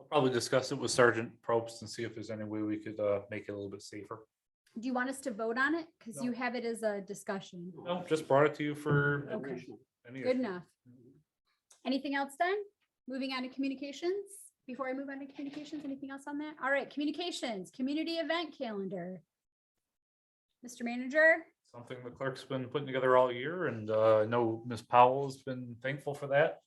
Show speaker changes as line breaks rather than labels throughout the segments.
I'll probably discuss it with Sergeant Probst and see if there's any way we could uh make it a little bit safer.
Do you want us to vote on it? Because
No.
you have it as a discussion.
No, just brought it to you for.
Okay.
any
Good
issue.
enough. Anything else done? Moving on to communications, before I move on to communications, anything else on that? All right, communications, community event calendar. Mr. Manager,
Something the clerk's been putting together all year and uh I know Ms. Powell's been thankful for that.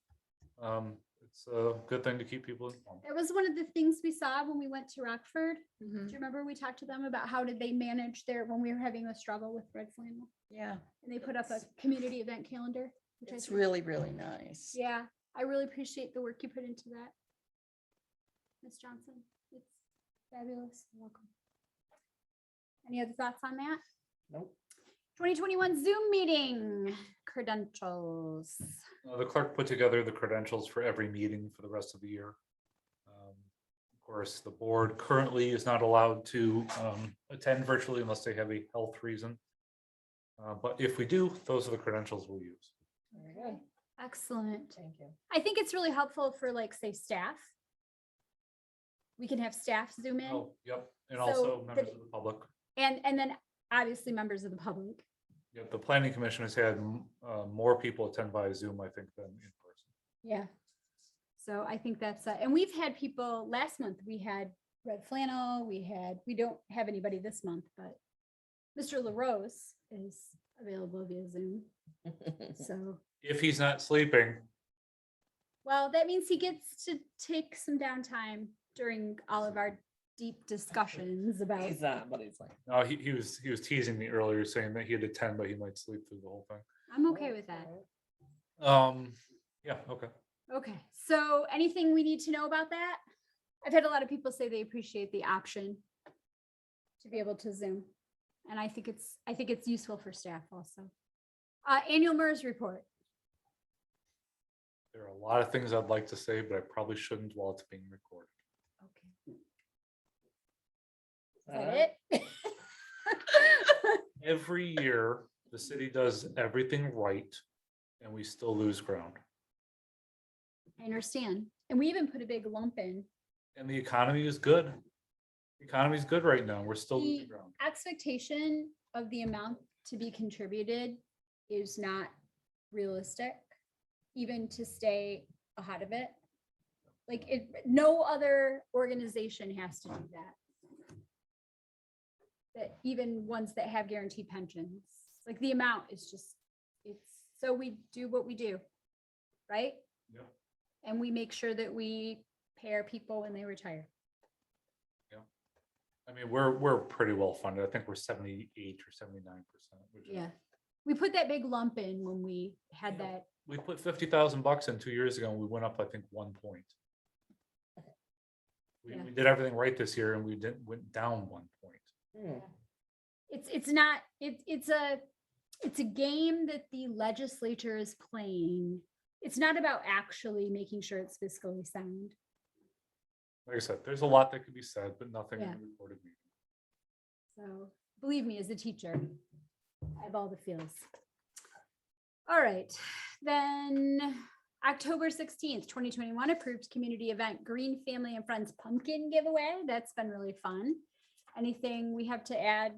Um, it's a good thing to keep people informed.
that was one of the things we saw when we went to Rockford. Do you remember we talked to them about how did they manage their, when we were having a struggle with Red Flannel?
Yeah,
And they put up a community event calendar. which I
it's
think-
really, really nice.
Yeah, I really appreciate the work you put into that. Ms. Johnson, it's fabulous. Welcome. Any other thoughts on that?
Nope.
Twenty twenty-one Zoom meeting credentials.
Uh, The clerk put together the credentials for every meeting for the rest of the year. Um, Of course, the board currently is not allowed to um, attend virtually unless they have a health reason. Uh, But if we do, those are the credentials we'll use.
Very good.
Excellent.
Thank you.
I think it's really helpful for like, say, staff. We can have staff zoom in
Oh, Yep, and
So
also
the-
members of the public.
and, and then obviously members of the public.
Yeah, The planning commission has had m- uh, more people attend via Zoom, I think, than in person.
Yeah. So I think that's, uh, and we've had people, last month, we had Red Flannel, we had, we don't have anybody this month, but Mr. LaRose is available via Zoom, so,
If he's not sleeping,
well, that means he gets to take some downtime during all of our deep discussions about,
He's not, but he's like.
uh, he he was, he was teasing me earlier saying that he'd attend, but he might sleep through the whole thing.
I'm okay with that.
Um, yeah, okay.
Okay, so anything we need to know about that? I've had a lot of people say they appreciate the option to be able to Zoom. And I think it's, I think it's useful for staff also. Uh, annual MERS report.
There are a lot of things I'd like to say, but I probably shouldn't while it's being recorded.
Okay. Is that it?
Every year, the city does everything right and we still lose ground.
I understand. And we even put a big lump in.
And the economy is good. The Economy is good right now. We're still losing
The-
ground.
Expectation of the amount to be contributed is not realistic, even to stay ahead of it. Like it, no other organization has to do that. That even ones that have guaranteed pensions, like the amount is just, it's, so we do what we do, right?
Yep.
And we make sure that we pay our people when they retire.
I mean, we're, we're pretty well funded. I think we're seventy-eight or seventy-nine percent. which is-
Yeah. We put that big lump in when we had
Yeah.
that
We put fifty thousand bucks in two years ago and we went up, I think, one point. We,
Yeah.
we did everything right this year and we didn't, went down one point.
hmm."
it's it's not it's it's a it's a game that the legislature is playing it's not about actually making sure it's fiscally sound
Like I said, there's a lot that could be said, but nothing in
Yeah.
the recorded meeting.
so believe me as a teacher i have all the feels all right then october 16th 2021 approved community event green family and friends pumpkin giveaway that's been really fun anything we have to add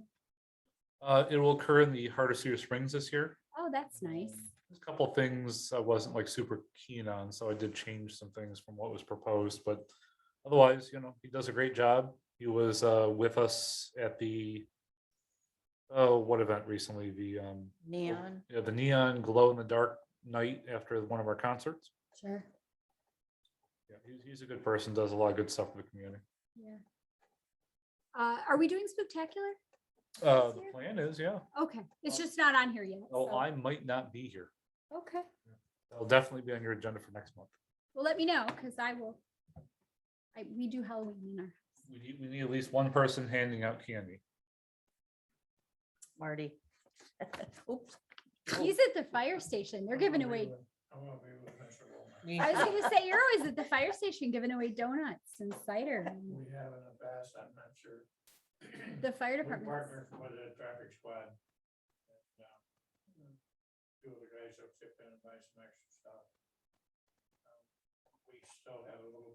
Uh, it will occur in the heart of Cedar Springs this year.
oh that's nice
Um, There's a couple things I wasn't like super keen on, so I did change some things from what was proposed, but otherwise, you know, he does a great job. He was, uh, with us at the, oh, what event recently? The, um,
Neon.
yeah, the neon glow in the dark night after one of our concerts.
sure
Yeah, he's, he's a good person, does a lot of good stuff for the community.
yeah uh, are we doing spectacular
Uh,
This
the
year?
plan is, yeah.
Okay, it's
Well-
just not on here yet.
Oh,
so-
I might not be here.
Okay,
I'll definitely be on your agenda for next month.
well, let me know, because I will. I, we do Halloween in our, house.
We need, we need at least one person handing out candy.
Marty. Oops.
Oh.
he's at the fire station, they're giving away,
Me.
I was gonna say, you're always at the fire station giving away donuts and cider, and
We have in the past, I'm not sure.
the fire
We
department.
partnered with a traffic squad. and, uh, Two of the guys will chip in and buy some extra stuff. Um, We still have a little